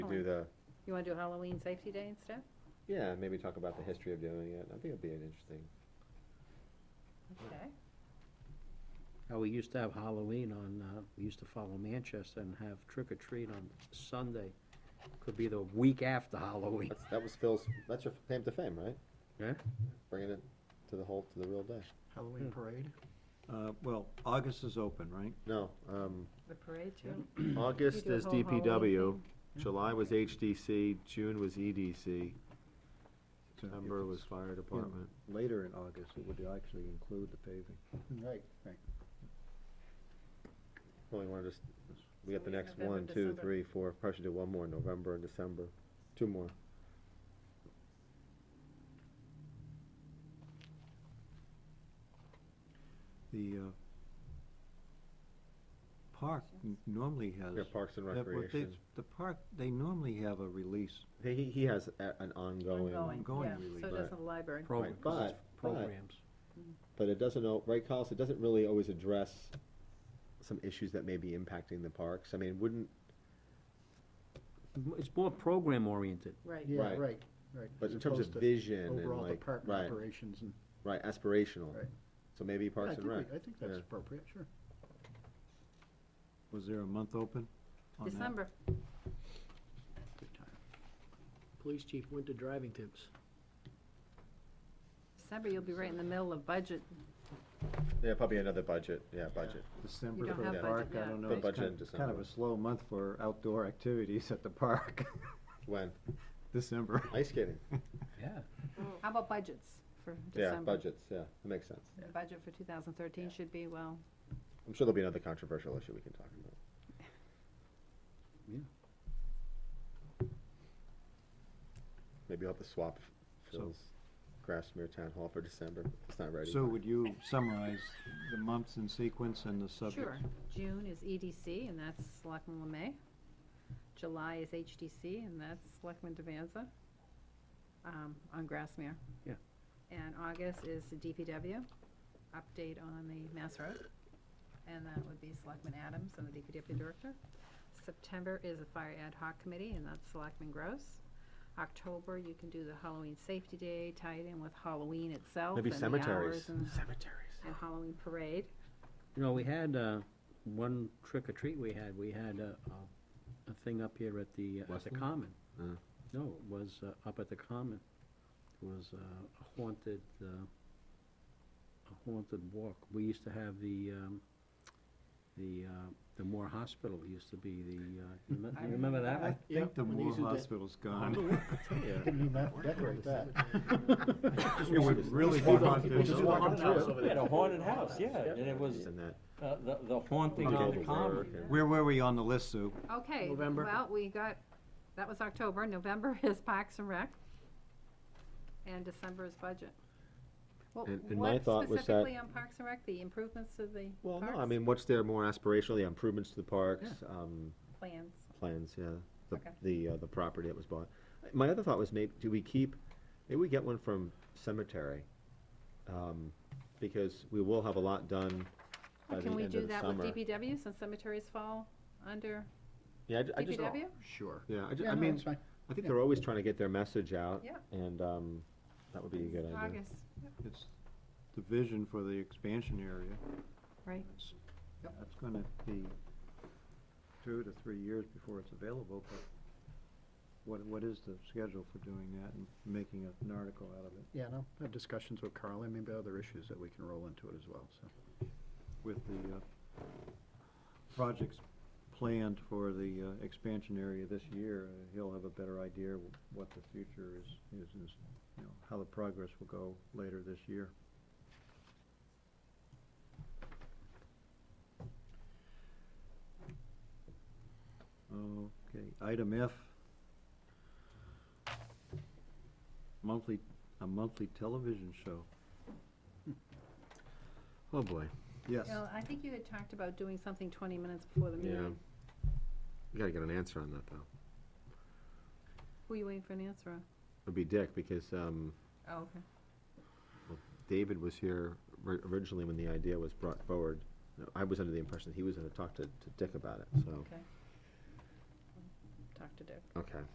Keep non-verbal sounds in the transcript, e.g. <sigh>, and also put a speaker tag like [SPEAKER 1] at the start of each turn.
[SPEAKER 1] do
[SPEAKER 2] Halloween.
[SPEAKER 1] the,
[SPEAKER 2] You wanna do Halloween Safety Day instead?
[SPEAKER 1] yeah, maybe talk about the history of doing it. I think it'd be an interesting,
[SPEAKER 2] Okay.
[SPEAKER 3] How we used to have Halloween on, uh, we used to follow Manchester and have trick or treat on Sunday. Could be the week after Halloween.
[SPEAKER 1] that's, that was Phil's, that's your claim to fame, right?
[SPEAKER 3] Yeah.
[SPEAKER 1] Bringing it to the whole, to the real day.
[SPEAKER 4] Halloween parade?
[SPEAKER 5] Uh, well, August is open, right?
[SPEAKER 1] No, um,
[SPEAKER 2] The parade too?
[SPEAKER 1] August
[SPEAKER 2] You do a
[SPEAKER 1] is
[SPEAKER 2] whole Halloween
[SPEAKER 1] DPW,
[SPEAKER 2] thing.
[SPEAKER 1] July was HDC, June was EDC,
[SPEAKER 5] So if
[SPEAKER 1] September
[SPEAKER 5] it's
[SPEAKER 1] was fire department.
[SPEAKER 5] Later in August, it would actually include the paving.
[SPEAKER 4] Right, right.
[SPEAKER 1] Well, we wanna just, we
[SPEAKER 2] So
[SPEAKER 1] got the
[SPEAKER 2] we have
[SPEAKER 1] next
[SPEAKER 2] November,
[SPEAKER 1] one, two,
[SPEAKER 2] December.
[SPEAKER 1] three, four, probably should do one more, November and December, two more.
[SPEAKER 5] The, uh, park n- normally has.
[SPEAKER 1] Yeah, Parks and
[SPEAKER 5] that- what they-
[SPEAKER 1] Recreation.
[SPEAKER 5] The park, they normally have a release.
[SPEAKER 1] He, he- he has a- an ongoing.
[SPEAKER 5] Ongoing
[SPEAKER 2] yeah.
[SPEAKER 5] really,
[SPEAKER 2] So
[SPEAKER 1] but-
[SPEAKER 2] does the library.
[SPEAKER 3] Program-
[SPEAKER 1] Right, but- but-
[SPEAKER 3] Programs.
[SPEAKER 1] But it doesn't, al- right, Carlos, it doesn't really always address some issues that may be impacting the parks. I mean, wouldn't,
[SPEAKER 3] M- It's more program oriented.
[SPEAKER 2] Right.
[SPEAKER 4] Yeah,
[SPEAKER 1] Right.
[SPEAKER 4] right, right.
[SPEAKER 1] But
[SPEAKER 4] As
[SPEAKER 1] in terms of
[SPEAKER 4] opposed to
[SPEAKER 1] vision and
[SPEAKER 4] Overall
[SPEAKER 1] like-
[SPEAKER 4] department
[SPEAKER 1] right.
[SPEAKER 4] operations and.
[SPEAKER 1] right, aspirational.
[SPEAKER 4] Right.
[SPEAKER 1] So maybe
[SPEAKER 4] Yeah, I
[SPEAKER 1] Parks and
[SPEAKER 4] think we-
[SPEAKER 1] Rec.
[SPEAKER 4] I think that's
[SPEAKER 1] yeah.
[SPEAKER 4] appropriate, sure.
[SPEAKER 5] Was there a month open on that?
[SPEAKER 2] December.
[SPEAKER 4] Good time.
[SPEAKER 6] Police chief winter driving tips.
[SPEAKER 2] December, you'll be right in the middle of budget.
[SPEAKER 1] Yeah, probably another budget, yeah, budget.
[SPEAKER 5] December
[SPEAKER 2] You don't
[SPEAKER 5] for the
[SPEAKER 2] have
[SPEAKER 5] park,
[SPEAKER 2] budget
[SPEAKER 5] I
[SPEAKER 2] yet.
[SPEAKER 5] don't know.
[SPEAKER 1] The
[SPEAKER 5] it's
[SPEAKER 1] budget
[SPEAKER 5] kind-
[SPEAKER 1] in
[SPEAKER 5] Kind of
[SPEAKER 1] December.
[SPEAKER 5] a slow month for outdoor <laughs> activities at the park, <laughs>
[SPEAKER 1] When?
[SPEAKER 5] December.
[SPEAKER 1] Ice skating.
[SPEAKER 3] Yeah.
[SPEAKER 2] How about budgets for
[SPEAKER 1] Yeah,
[SPEAKER 2] December?
[SPEAKER 1] budgets, yeah, that makes sense.
[SPEAKER 2] The Budget for two thousand thirteen should be, well,
[SPEAKER 1] I'm sure there'll be another controversial issue we can talk about.
[SPEAKER 3] Yeah.
[SPEAKER 1] Maybe I'll have to swap
[SPEAKER 5] So-
[SPEAKER 1] Phil's Grassmere Town Hall for December. It's not ready.
[SPEAKER 5] So would you summarize the months in sequence and the subjects?
[SPEAKER 2] sure. June is EDC, and that's Selectman Lemay. July is HDC, and that's Selectman Devanza, um, on Grassmere.
[SPEAKER 3] Yeah.
[SPEAKER 2] And August is the DPW, update on the Mass Road, and that would be Selectman Adams and the DPW Director. September is the Fire Ad Hoc Committee, and that's Selectman Gross. October, you can do the Halloween Safety Day, tie it in with Halloween itself.
[SPEAKER 1] Maybe
[SPEAKER 2] and the
[SPEAKER 1] cemeteries.
[SPEAKER 2] hours And
[SPEAKER 1] Cemeteries.
[SPEAKER 2] and Halloween Parade.
[SPEAKER 3] You know, we had, uh, one trick or treat we had, we had a, a- a thing up here at the, at the
[SPEAKER 5] Westland?
[SPEAKER 3] Common.
[SPEAKER 1] Mm.
[SPEAKER 3] No, it was, uh, up at the Common. It was, uh, a haunted, uh, a haunted walk. We used to have the, um, the, uh, the Moore Hospital used to be the, uh, you me-
[SPEAKER 2] I
[SPEAKER 3] you remember that
[SPEAKER 5] I
[SPEAKER 3] one?
[SPEAKER 6] Yeah,
[SPEAKER 5] think the
[SPEAKER 6] when they
[SPEAKER 5] Moore
[SPEAKER 6] used to de-
[SPEAKER 5] Hospital's
[SPEAKER 3] I
[SPEAKER 5] gone.
[SPEAKER 3] don't know what to tell
[SPEAKER 4] <laughs>
[SPEAKER 3] ya.
[SPEAKER 4] Didn't even decorate that.
[SPEAKER 1] <laughs>
[SPEAKER 5] It would really be haunted.
[SPEAKER 6] Just walk up to it.
[SPEAKER 7] We had a haunted house, yeah, and it was
[SPEAKER 1] And that.
[SPEAKER 7] uh, the the haunting on the common.
[SPEAKER 5] Where were we on the list, Sue?
[SPEAKER 2] Okay.
[SPEAKER 6] November.
[SPEAKER 2] Well, we got, that was October. November <laughs> is Parks and Rec. And December is budget. Well,
[SPEAKER 1] And- and my
[SPEAKER 2] what
[SPEAKER 1] thought was that-
[SPEAKER 2] specifically on Parks and Rec, the improvements to the
[SPEAKER 1] Well, no, I
[SPEAKER 2] parks?
[SPEAKER 1] mean, what's their more aspirational, the improvements to the parks, um,
[SPEAKER 2] Plans.
[SPEAKER 1] plans, yeah, the,
[SPEAKER 2] Okay.
[SPEAKER 1] the, uh, the property that was bought. My other thought was maybe, do we keep, maybe we get one from cemetery, um, because we will have a lot done by the
[SPEAKER 2] Can we
[SPEAKER 1] end of
[SPEAKER 2] do
[SPEAKER 1] the
[SPEAKER 2] that with
[SPEAKER 1] summer.
[SPEAKER 2] DPW since cemeteries fall under
[SPEAKER 1] Yeah, I ju- I just,
[SPEAKER 2] DPW?
[SPEAKER 4] Sure.
[SPEAKER 1] yeah, I ju-
[SPEAKER 4] Yeah,
[SPEAKER 1] I
[SPEAKER 4] no,
[SPEAKER 1] mean,
[SPEAKER 4] that's fine.
[SPEAKER 1] I think
[SPEAKER 4] Yeah.
[SPEAKER 1] they're always trying to get their message out.
[SPEAKER 2] Yeah.
[SPEAKER 1] And, um, that would be a good idea.
[SPEAKER 2] August,
[SPEAKER 5] It's the vision for the expansion area.
[SPEAKER 2] right.
[SPEAKER 5] It's-
[SPEAKER 4] Yep.
[SPEAKER 5] That's gonna be two to three years before it's available, but what, what is the schedule for doing that and making a- an article out of it
[SPEAKER 4] Yeah, no, have discussions with Carl, and maybe other issues that we can roll into it as well, so.
[SPEAKER 5] with the, uh, projects planned for the, uh, expansion area this year? uh, He'll have a better idea wh- what the future is, is, is, you know, how the progress will go later this year. Okay, item F. Monthly, a monthly television show.
[SPEAKER 1] Oh, boy.
[SPEAKER 5] Yes.
[SPEAKER 2] Well, I think you had talked about doing something twenty minutes before the
[SPEAKER 1] Yeah.
[SPEAKER 2] meeting.
[SPEAKER 1] We gotta get an answer on that, though.
[SPEAKER 2] Who are you waiting for an answer on?
[SPEAKER 1] It'd be Dick, because, um,
[SPEAKER 2] Oh, okay.
[SPEAKER 1] David was here ri- originally when the idea was brought forward. Oh. I was under the impression that he was gonna talk to, to Dick about it, so.
[SPEAKER 2] Okay.
[SPEAKER 8] talk to Dick.
[SPEAKER 2] Okay.